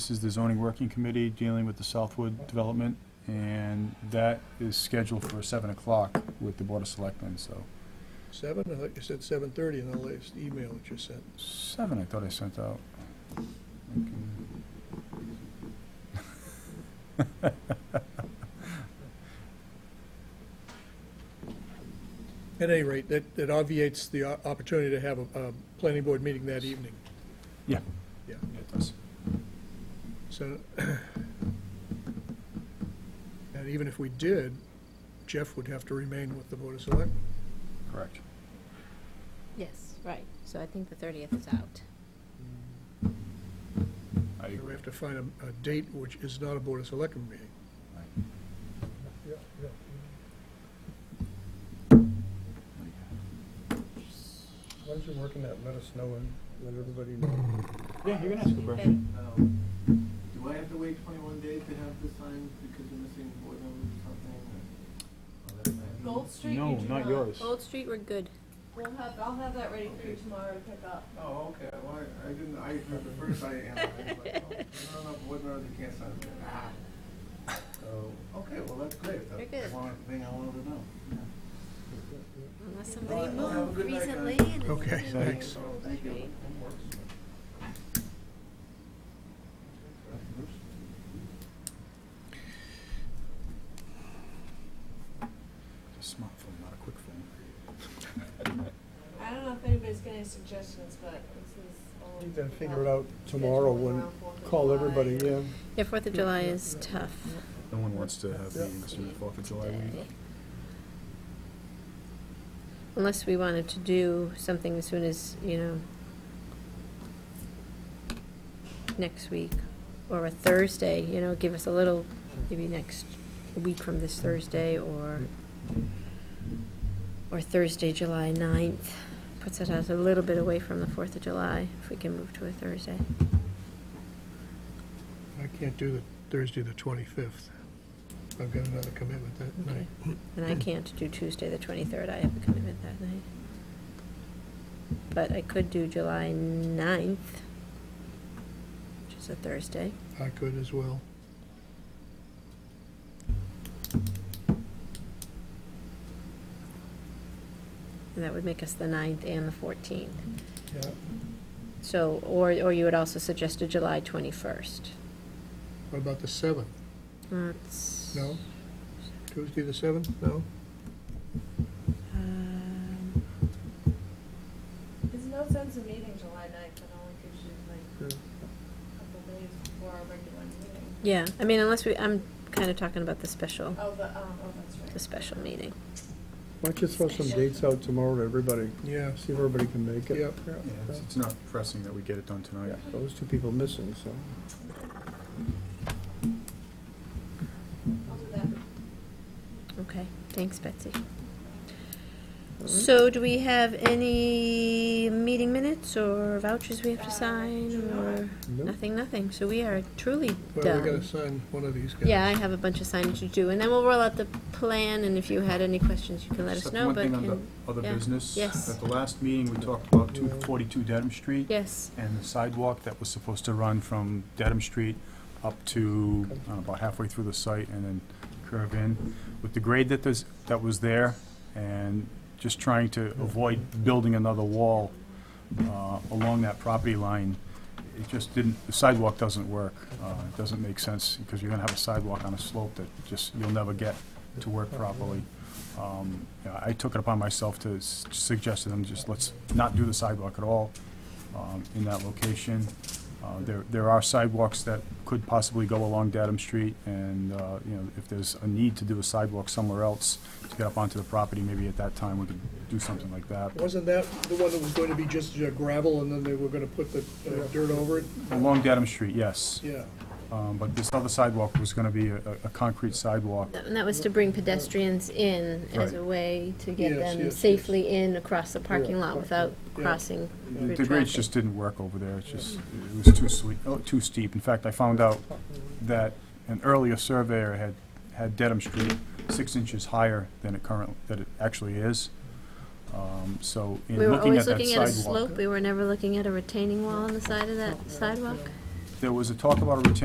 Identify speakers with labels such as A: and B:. A: This is the zoning working committee dealing with the Southwood development, and that is scheduled for 7 o'clock with the Board of Selectmen, so.
B: Seven, I thought you said seven thirty in the latest email that you sent.
A: 7, I thought I sent out.
B: At any rate, that, that obviates the o- opportunity to have a, a planning board meeting that evening.
A: Yeah.
B: Yeah.
A: It does.
B: So, and even if we did, Jeff would have to remain with the Board of Select.
A: Correct.
C: Yes, right. So I think the 30th is out.
A: I
B: So we
A: agree.
B: have to find a, a date which is not a Board of Selectmen meeting.
D: Why don't you work on that, let us know and let everybody know.
A: Yeah, you can ask
C: Then
E: Um, Do I have to wait twenty-one days to have this signed because you're missing board members or something? or- or that's not-
F: Gold Street,
A: No,
F: you do
A: not yours.
C: Old Street, we're good.
F: We'll have, I'll have that ready for you tomorrow to pick up.
E: Oh, okay, well, I- I didn't, I, at the first I analyzed, like, oh, there's not enough board members that can't sign it, ah. So, okay, well, that's great,
C: You're
E: that's
C: good.
E: one thing I wanted to know.
C: Unless
E: All
C: somebody
E: right, well, have a
C: moved
E: good night, guys.
C: recently. and it's
B: Okay,
C: been
B: thanks.
E: So,
C: Old
E: Thank you.
C: Street.
E: Homeworks.
A: Smartphone, not a quick phone.
F: I don't know if anybody's got any suggestions, but this is all.
D: You can figure it out tomorrow when, call everybody, yeah.
C: Yeah, 4th of July is tough.
A: No one wants to have meetings on the 4th of July
C: day.
A: week.
C: Unless we wanted to do something as soon as, you know, next week or a Thursday, you know, give us a little, maybe next week from this Thursday or, or Thursday, July 9th. Puts it us a little bit away from the 4th of July if we can move to a Thursday.
B: I can't do the Thursday, the twenty-fifth. I've got another commitment that night.
C: And I can't do Tuesday, the 23rd, I have a commitment that night. But I could do July 9th, which is a Thursday.
B: I could as well.
C: And that would make us the 9th and the 14th.
B: Yeah.
C: So, or, or you had also suggested July 21st.
B: What about the seventh?
C: That's.
B: No? Tuesday, the seventh? No?
C: Um,
F: There's no sense in meeting July ninth, it only gives you like
B: Yeah.
F: a couple days before our regular meeting.
C: Yeah, I mean, unless we, I'm kind of talking about the special,
F: Oh, the, um, oh, that's
C: the
F: right.
C: special meeting.
D: Why don't you throw some dates out tomorrow to everybody,
B: Yeah.
D: see if everybody can make it.
B: Yep.
A: Yeah, it's- It's not pressing that we get it done tonight.
D: Yeah, Those two people missing, so.
F: I'll do that.
C: Okay, thanks, Betsy. So do we have any meeting minutes or vouchers we have
F: Uh,
C: to sign or
D: Nope.
C: nothing, nothing? So we are truly
B: Well, we gotta
C: done.
B: sign one of these guys.
C: Yeah, I have a bunch of signage to do, and then we'll roll out the plan, and if you had any questions, you can let
A: Just
C: us
A: have
C: know, but
A: One thing on
C: can,
A: the other
C: yeah,
A: business.
C: yes.
A: At the last meeting, we talked about 242 Dedham Street.
C: yes,
A: and the sidewalk that was supposed to run from Dedham Street up to uh, about halfway through the site and then curve in. With the grade that there's, that was there, and just trying to avoid building another wall uh, along that property line, it just didn't, the sidewalk doesn't work. Uh, It doesn't make sense, because you're gonna have a sidewalk on a slope that just, you'll never get to work properly. Um, yeah, I took it upon myself to s- suggest to them, just let's not do the sidewalk at all um, in that location. Uh, There, there are sidewalks that could possibly go along Dedham Street, and, uh, you know, if there's a need to do a sidewalk somewhere else to get up onto the property, maybe at that time we could do something like that.
B: Wasn't that the one that was going to be just uh, gravel and then they were gonna put the uh, dirt over it?
A: Along Dedham Street, yes,
B: Yeah.
A: Um, but this other sidewalk was gonna be a, a- a concrete sidewalk.
C: and that was to bring pedestrians in as
A: Right.
C: a way to get
B: Yes, yes,
C: them
B: yes.
C: safely in across the parking lot without
B: Yeah.
C: crossing through
A: The grades
C: traffic.
A: just didn't work over there, it's just, it was too sweet, oh, too steep. In fact, I found out that an earlier surveyor had, had Dedham Street six inches higher than it current, that it actually is. Um, So, in
C: We were
A: looking at
C: always
A: that
C: looking at a
A: sidewalk.
C: slope, we were never looking at a retaining wall on the side of that sidewalk.
A: there was a talk about a retention